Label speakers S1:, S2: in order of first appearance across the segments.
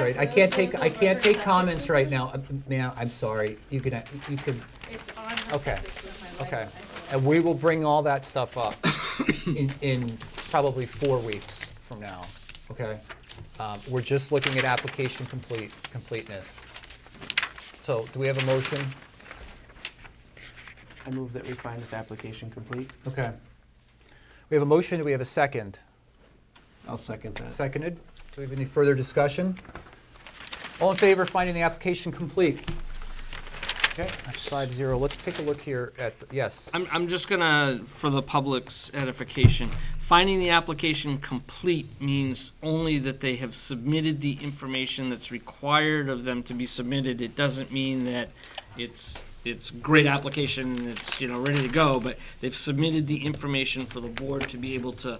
S1: Right, I can't take, I can't take comments right now, Uh, ma'am, I'm sorry, you can, uh, you can,
S2: It's on her
S1: Okay,
S2: subject list, my
S1: okay.
S2: life. I
S1: And we will bring all that stuff up in, in probably four weeks from now, okay? Um, We're just looking at application complete, completeness. So do we have a motion?
S3: I move that we find this application complete.
S1: Okay. We have a motion, do we have a second?
S4: I'll second that.
S1: Seconded. Do we have any further discussion? All in favor of finding the application complete? Okay, that's five zero. Let's take a look here at, yes.
S5: I'm, I'm just gonna, for the public's edification, finding the application complete means only that they have submitted the information that's required of them to be submitted. It doesn't mean that it's, it's great application, and it's, you know, ready to go, but they've submitted the information for the board to be able to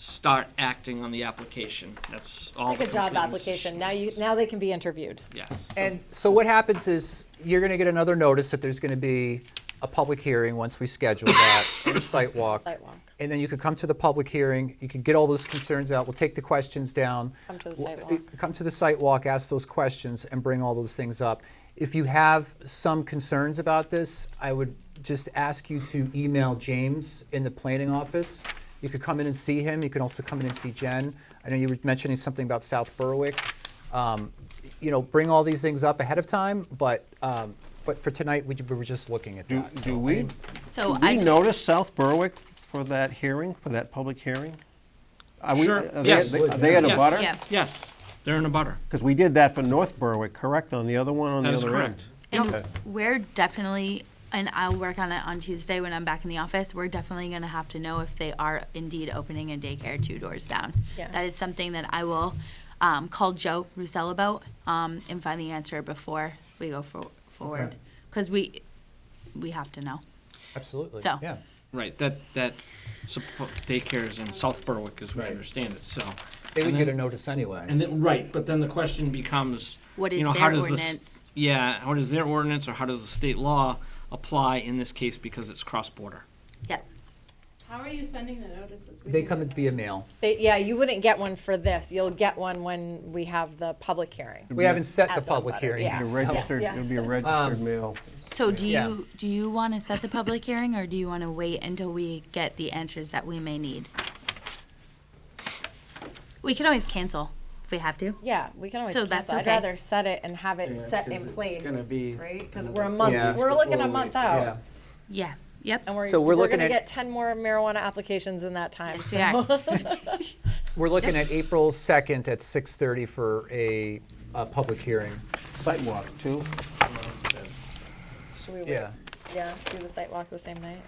S5: start acting on the application. That's all.
S6: Like a
S5: the
S6: job
S5: completeness is-
S6: application. Now you, now they can be interviewed.
S5: Yes.
S1: And so what happens is, you're gonna get another notice that there's gonna be a public hearing once we schedule that, and a site walk.
S6: Site walk.
S1: And then you could come to the public hearing, you could get all those concerns out, we'll take the questions down.
S6: Come to the
S1: w-
S6: site
S1: uh, Come to the site walk, ask those questions, and bring all those things up. If you have some concerns about this, I would just ask you to email James in the planning office. You could come in and see him, you can also come in and see Jen. I know you were mentioning something about South Berwick. Um, You know, bring all these things up ahead of time, but, um, but for tonight, we ju- we were just looking at
S4: Do,
S1: that.
S4: do we, do
S7: So I
S4: we
S7: just-
S4: notice South Berwick for that hearing, for that public hearing? Are we-
S5: Sure,
S4: are they-
S5: yes.
S4: Are they at a
S5: Yes.
S4: butter?
S7: Yeah.
S5: Yes, they're in a butter.
S4: Because we did that for North Berwick, correct, on the other one, on the
S5: That is
S4: other end?
S5: correct.
S7: And we're definitely, and I'll work on it on Tuesday when I'm back in the office, we're definitely gonna have to know if they are indeed opening a daycare two doors down.
S6: Yeah.
S7: That is something that I will, um, call Joe Russell about, um, and find the answer before we go for, forward. Cause we, we have to know.
S1: Absolutely,
S7: So.
S1: yeah.
S5: Right, that, that suppo- daycare is in South Berwick, as we
S1: Right.
S5: understand it, so.
S1: They would
S5: And
S1: get a
S5: then-
S1: notice anyway.
S5: And then, right, but then the question becomes,
S7: What
S5: you
S7: is
S5: know, how
S7: their
S5: does this?
S7: ordinance?
S5: Yeah, how does their ordinance or how does the state law apply in this case because it's cross-border?
S7: Yep.
S2: thought- How are you sending the notices? We
S1: They
S2: didn't
S1: come
S2: get
S1: via mail.
S6: They, yeah, you wouldn't get one for this. You'll get one when we have the public hearing.
S1: We haven't set the
S6: As a
S1: public
S6: letter,
S1: hearing.
S6: yeah.
S4: It'd be
S1: so-
S4: registered,
S6: yes.
S4: it'll be a
S5: Um,
S4: registered mail.
S7: So do
S1: Yeah.
S7: you, do you wanna set the public hearing or do you wanna wait until we get the answers that we may need? We can always cancel if we have to.
S6: Yeah, we can always
S7: So
S6: cancel.
S7: that's
S6: I'd
S7: okay.
S6: rather set it and have
S3: Yeah,
S6: it set
S3: 'cause
S6: in
S3: it's
S6: place,
S3: gonna be
S6: right? Because
S3: another
S6: we're a
S3: couple
S6: month,
S1: weeks
S6: we're looking
S3: before
S6: a
S3: we-
S6: month
S1: Yeah.
S6: out.
S7: Yeah, yep.
S6: And we're,
S1: So we're
S6: we're
S1: looking
S6: gonna
S1: at-
S6: get ten more marijuana applications in that time.
S7: Yes,
S6: so-
S7: we are.
S1: We're looking at April 2nd at 6:30 for a, a public hearing.
S4: Sidewalk, too.
S6: Should we wait?
S1: Yeah.
S6: Yeah, do the site walk the same night.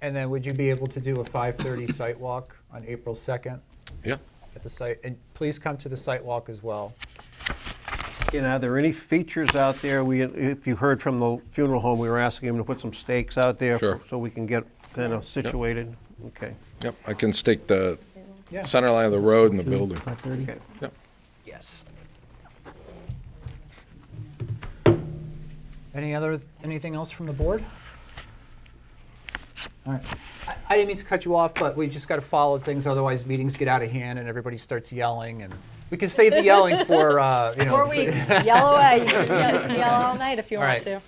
S1: And then would you be able to do a 5:30 site walk on April 2nd
S8: Yeah.
S1: at the site? And please come to the site walk as well.
S4: And are there any features out there? We, if you heard from the funeral home, we were asking them to put some stakes out there
S8: Sure.
S4: so we can get kind of situated. Okay.
S8: Yep, I can stake the
S1: Yeah.
S8: center line of the road and the building.
S4: Okay.
S8: Yep.
S1: Yes. Any other, anything else from the board? All right. I- I didn't mean to cut you off, but we just got to follow things, otherwise meetings get out of hand and everybody starts yelling, and we can save the yelling for, uh, you know.
S6: Four
S1: for-
S6: weeks, yell away, you can yell, yell all night if you
S1: All
S6: want
S1: right.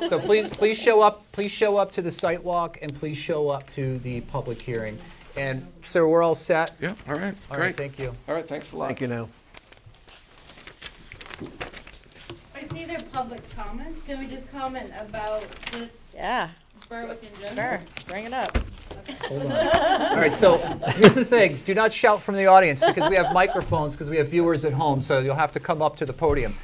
S6: to.
S1: So please, please show up, please show up to the site walk and please show up to the public hearing. And sir, we're all set?
S8: Yep, all right,
S1: All right,
S8: great.
S1: thank you.
S8: All right, thanks a lot.
S4: Thank you now.
S2: I see their public comments. Can we just comment about just
S6: Yeah,
S2: Berwick in general?
S6: sure, bring it up.
S1: All right, so here's the thing, do not shout from the audience because we have microphones, because we have viewers at home, so you'll have to come up to the podium.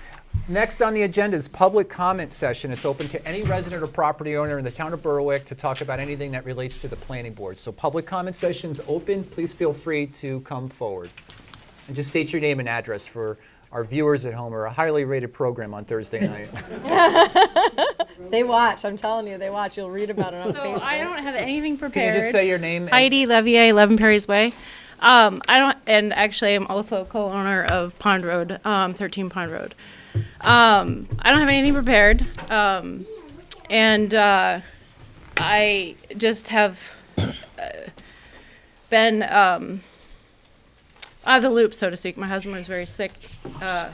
S1: Next on the agenda is public comment session. It's open to any resident or property owner in the town of Berwick to talk about anything that relates to the planning board. So public comment session's open, please feel free to come forward. And just state your name and address for our viewers at home or a highly rated program on Thursday night.
S6: They watch, I'm telling you, they watch, you'll read about it on
S2: So I
S6: Facebook.
S2: don't have anything
S1: Can you
S2: prepared.
S1: just say your name? and-
S9: Heidi Levier, 11 Perry's Way. Um, I don't, and actually, I'm also co-owner of Pond Road, um, 13 Pond Road. Um, I don't have anything prepared, um, and uh, I just have uh, been um, out of the loop, so to speak. My husband was very sick uh,